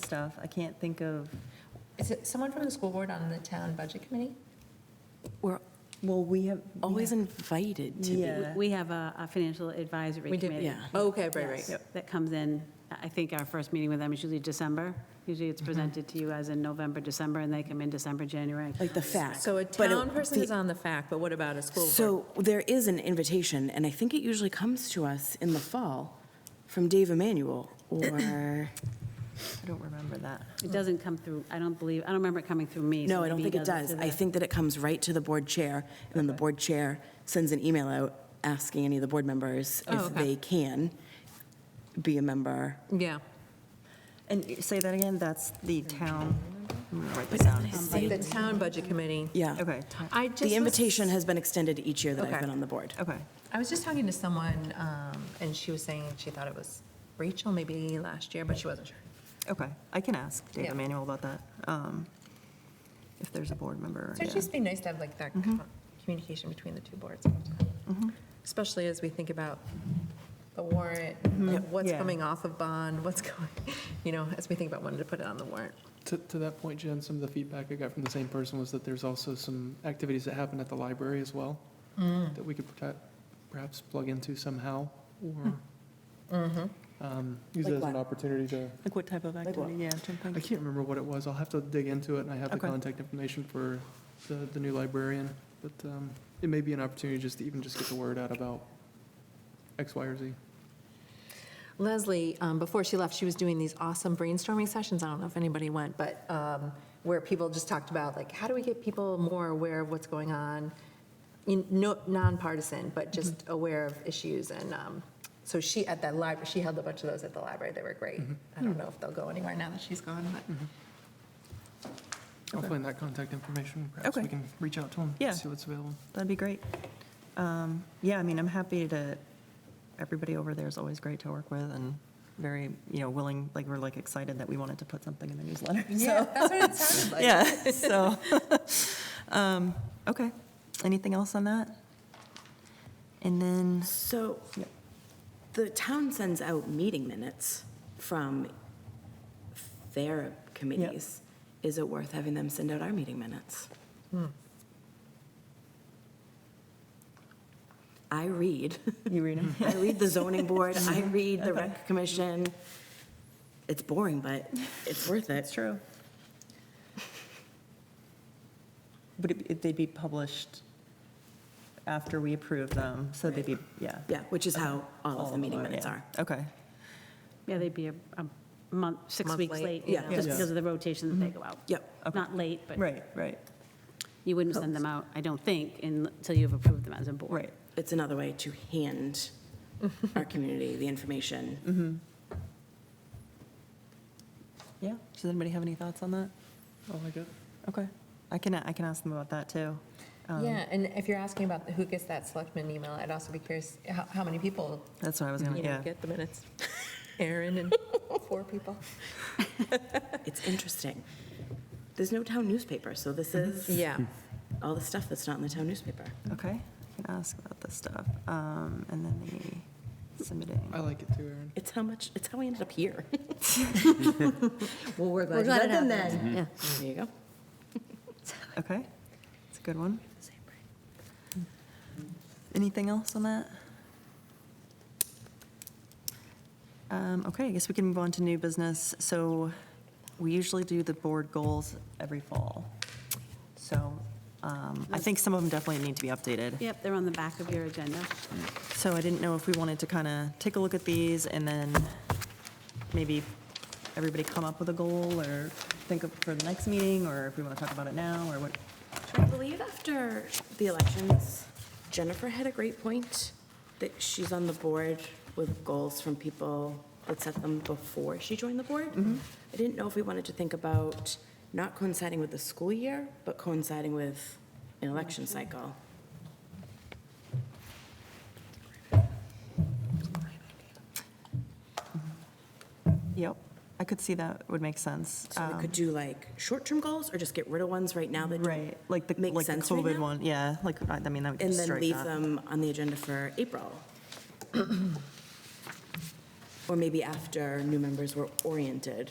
stuff. I can't think of, Is it someone from the school board on the town budget committee? We're well, we have. we always have- invited to be. Yeah. We have a a financial advisory We did- committee. yeah. Oh, Okay, right, right. That comes in, I think our first meeting with them is usually December. Usually Mm-hmm. it's presented to you as in November, December, and they come in December, January. Like the fact. So a but it- town person the- is on the fact, but what about a school board? So there is an invitation, and I think it usually comes to us in the fall from Dave Emanuel or, I don't remember that. It doesn't come through, I don't believe, I don't remember it coming through me. so no, I don't maybe think it doesn't does. to I the- think that it comes right to the board chair, and then the board chair sends an email out asking any of the board members Oh, if okay. they can be a member. Yeah. And say that again, that's the town. I'm gonna write this down. Uh, Like the town budget committee. Yeah. Okay, town- I just. The was- invitation has been extended each year that Okay. I've been on the board. okay. I was just talking to someone, um, and she was saying she thought it was Rachel maybe last year, but she wasn't sure. Okay, I can ask Dave Yeah. Emanuel about that, um, if there's a board member. So yeah. it'd just be nice to have like that co- communication between the two boards. Mm-hmm. Especially as we think about the warrant, like, what's Yeah. coming off of bond, what's going, you know, as we think about when to put it on the warrant. To, to that point, Jen, some of the feedback I got from the same person was that there's also some activities that happen at the library as well Mm. that we could perta- perhaps plug into somehow Mm. or Mm-hmm. um, use it Like as an what? opportunity to, Like what type of what? activity, yeah, I'm trying to I think. can't remember what it was. I'll have to dig into it and I have the Okay. contact information for the, the new librarian. But um, it may be an opportunity just to even just get the word out about X, Y, or Z. Leslie, um, before she left, she was doing these awesome brainstorming sessions. I don't know if anybody went, but um, where people just talked about like, how do we get people more aware of what's going on? In, no, nonpartisan, but just aware of issues. And um, so she at that library, she held a bunch of those at the library. They were great. I don't know if they'll go anywhere now that she's gone, but I'll find that contact information. Perhaps Okay. we can reach out to them, Yeah. see what's available. That'd be great. Um, Yeah, I mean, I'm happy to, everybody over there is always great to work with and very, you know, willing, like, we're like excited that we wanted to put something in the newsletter, so. that's what it sounded like. Yeah, so, um, okay. Anything else on that? And then, So Yep. the town sends out meeting minutes from their committees. Is it worth having them send out our meeting minutes? I read, you read them? I read the zoning board, I read the rec commission. It's boring, but it's worth That's it. true. But it- it- they'd be published after we approve them, so they'd be, yeah. Yeah, which is how all of the meeting them minutes yeah. are. Okay, Yeah, they'd be a a month, six Month weeks late, late, you yeah. know, just Yeah. because of the rotation that they go out. Yep. Not late, but right, right, you wouldn't send them out, I don't think, until you've approved them as a board. right. It's another way to hand our community the information. Yeah, does anybody have any thoughts on that? I like it. Okay, I can, I can ask them about that, too. Um, Yeah, and if you're asking about who gets that selectman email, I'd also be curious how, how many people That's what I was gonna, you know yeah. get the minutes. Aaron and four people. It's interesting. There's no town newspaper, so this is Yeah. all the stuff that's not in the town newspaper. Okay, I can ask about this stuff. Um, And then the submitting. I like it too, Aaron. It's how much, it's how we ended up here. Well, we're glad, you let glad it them happened. then. There you go. Okay, it's a good one. Anything else on that? Um, Okay, I guess we can move on to new business. So we usually do the board goals every fall. So um, I think some of them definitely need to be updated. Yep, they're on the back of your agenda. So I didn't know if we wanted to kind of take a look at these and then maybe everybody come up with a goal or think of for the next meeting, or if we want to talk about it now, or what. I believe after the elections, Jennifer had a great point that she's on the board with goals from people that set them before she joined the board. I didn't know if we wanted to think about not coinciding with the school year, but coinciding with an election cycle. Yep, I could see that would make sense. So we Um, could do like short-term goals or just get rid of ones right now that don't Right, like the, make like the sense right COVID now? one, yeah, like, I I mean, that would And just then strike leave that. them on the agenda for April. Or maybe after new members were oriented,